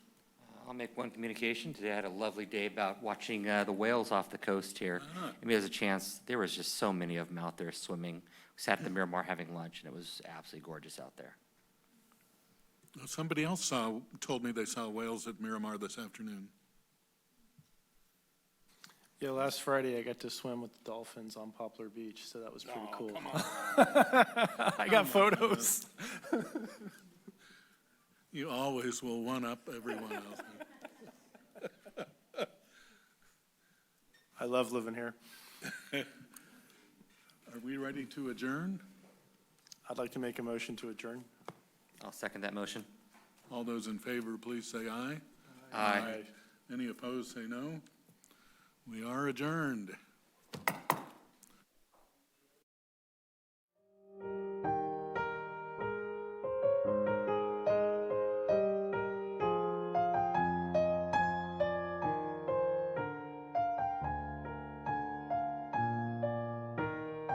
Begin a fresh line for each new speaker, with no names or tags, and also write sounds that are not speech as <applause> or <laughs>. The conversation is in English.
I'll make one communication. Today I had a lovely day about watching uh, the whales off the coast here.
Ah.
I mean, there's a chance, there was just so many of them out there swimming. We Sat
<laughs>
at the Miramar having lunch, and it was absolutely gorgeous out there.
Somebody else saw, told me they saw whales at Miramar this afternoon.
Yeah, last Friday I got to swim with the dolphins on Poplar Beach, so that was pretty cool. <laughs> I
Um,
got photos.
You always will one-up everyone else.
I love living here.
Are we ready to adjourn?
I'd like to make a motion to adjourn.
I'll second that motion.
All those in favor, please say aye.
Aye.
Any opposed, say no. We are adjourned.